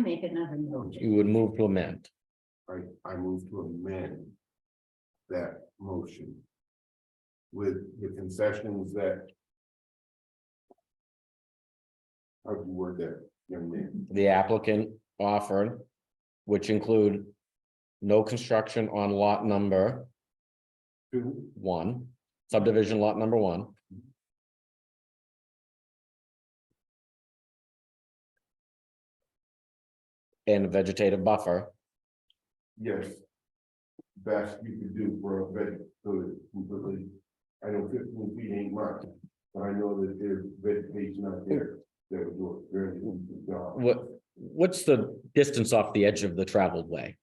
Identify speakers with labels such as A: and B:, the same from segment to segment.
A: make another motion.
B: You would move to amend.
C: I, I move to amend that motion with the concessions that how do you word that, young man?
B: The applicant offered, which include no construction on lot number
C: Two,
B: one, subdivision lot number one. And a vegetative buffer,
C: yes. Best you could do for a vet, so it's completely, I know fifteen feet ain't much, but I know that there's vegetation out there that would do a very good job.
B: what, what's the distance off the edge of the traveled way?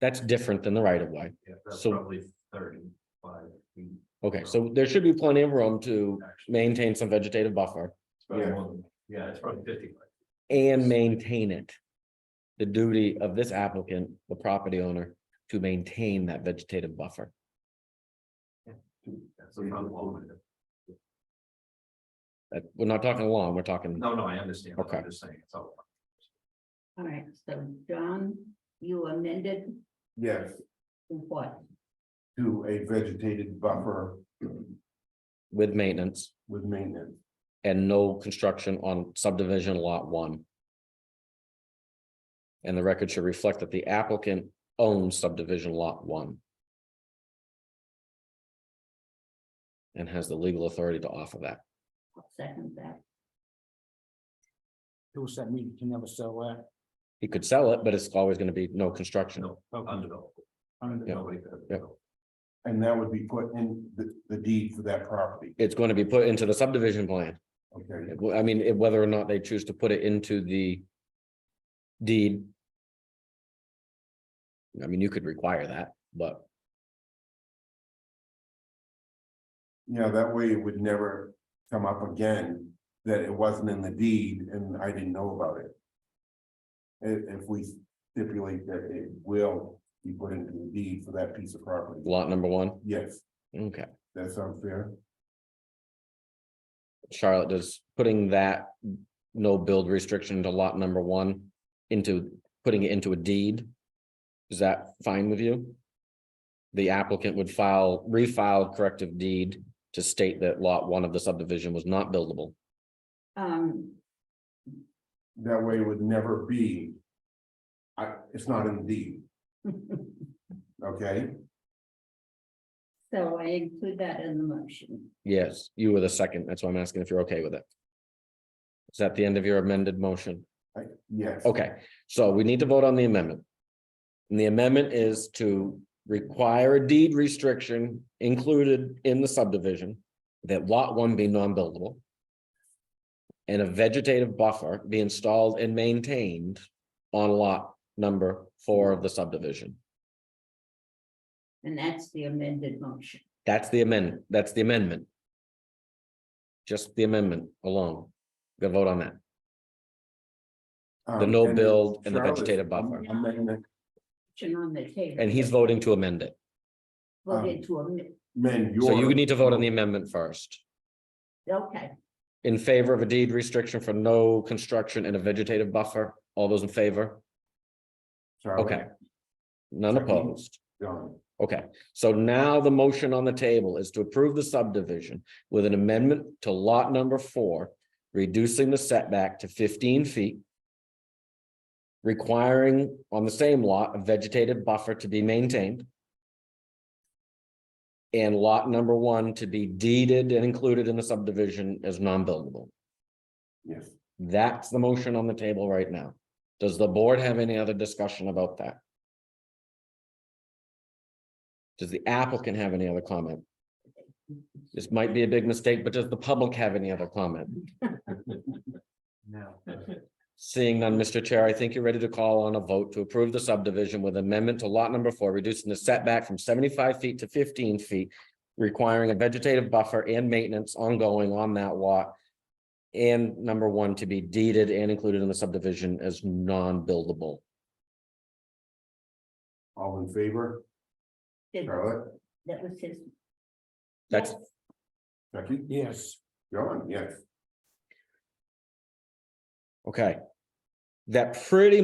B: That's different than the right of way.
D: Yeah, that's
B: So-
D: probably thirty-five feet.
B: Okay, so there should be plenty of room to
D: actually.
B: maintain some vegetative buffer
D: It's probably
C: Yeah.
D: more than- Yeah, it's probably fifty-five.
B: and maintain it. The duty of this applicant, the property owner, to maintain that vegetative buffer.
D: That's about long.
B: That, we're not talking long, we're talking,
D: No, no, I understand. but
B: Okay.
D: I'm just saying, it's all.
A: All right, so Don, you amended
C: Yes,
A: what?
C: to a vegetated buffer
B: with maintenance
C: with maintenance.
B: and no construction on subdivision lot one. And the record should reflect that the applicant owns subdivision lot one. And has the legal authority to offer that.
A: I'll Second that.
E: Who said we can never sell that?
B: He could sell it, but it's always gonna be no construction.
D: No, undeveloped. Nobody could have
B: Yeah.
D: developed.
C: And that would be put in the, the deed for that property,
B: It's going to be put into the subdivision plan.
C: okay?
B: I mean, it- whether or not they choose to put it into the deed. I mean, you could require that, but
C: Yeah, that way it would never come up again, that it wasn't in the deed and I didn't know about it. If, if we stipulate that it will be put into the deed for that piece of property,
B: lot number one,
C: yes,
B: okay.
C: that sounds fair.
B: Charlotte, does putting that no build restriction to lot number one into, putting it into a deed? Is that fine with you? The applicant would file, refile corrective deed to state that lot one of the subdivision was not buildable.
A: Um,
C: That way it would never be. I, it's not in the deed, okay?
A: so I include that in the motion.
B: Yes, you were the second. That's why I'm asking if you're okay with it. Is that the end of your amended motion?
C: I- yes.
B: Okay, so we need to vote on the amendment. And the amendment is to require a deed restriction included in the subdivision that lot one be non-buildable. And a vegetative buffer be installed and maintained on lot number four of the subdivision.
A: And that's the amended motion.
B: That's the amendment, that's the amendment. Just the amendment alone. Go vote on that.
C: Um,
B: the no
C: and
B: build and the
C: Charlotte's
B: vegetative buffer.
C: amendment-
A: Motion on the table.
B: And he's um, voting to amend it.
A: Voted to amend,
C: amend
B: So you
C: your-
B: need to vote on the amendment first.
A: okay,
B: In favor of a deed restriction for no construction and a vegetative buffer. All those in favor?
C: Charlotte,
B: Okay. None opposed.
C: Done.
B: Okay, so now the motion on the table is to approve the subdivision with an amendment to lot number four, reducing the setback to fifteen feet. Requiring on the same lot a vegetative buffer to be maintained. And lot number one to be deeded and included in the subdivision as non-buildable.
C: yes,
B: That's the motion on the table right now. Does the board have any other discussion about that? Does the applicant have any other comment? This might be a big mistake, but does the public have any other comment?
D: No.
B: Seeing none, Mr. Chair, I think you're ready to call on a vote to approve the subdivision with amendment to lot number four, reducing the setback from seventy-five feet to fifteen feet. Requiring a vegetative buffer and maintenance ongoing on that lot. And number one to be deeded and included in the subdivision as non-buildable.
C: all in favor,
A: Did-
C: Charlotte?
A: that was his.
B: That's-
A: Yes.
C: Becky,
E: Yes,
C: John, yes.
B: Okay. That pretty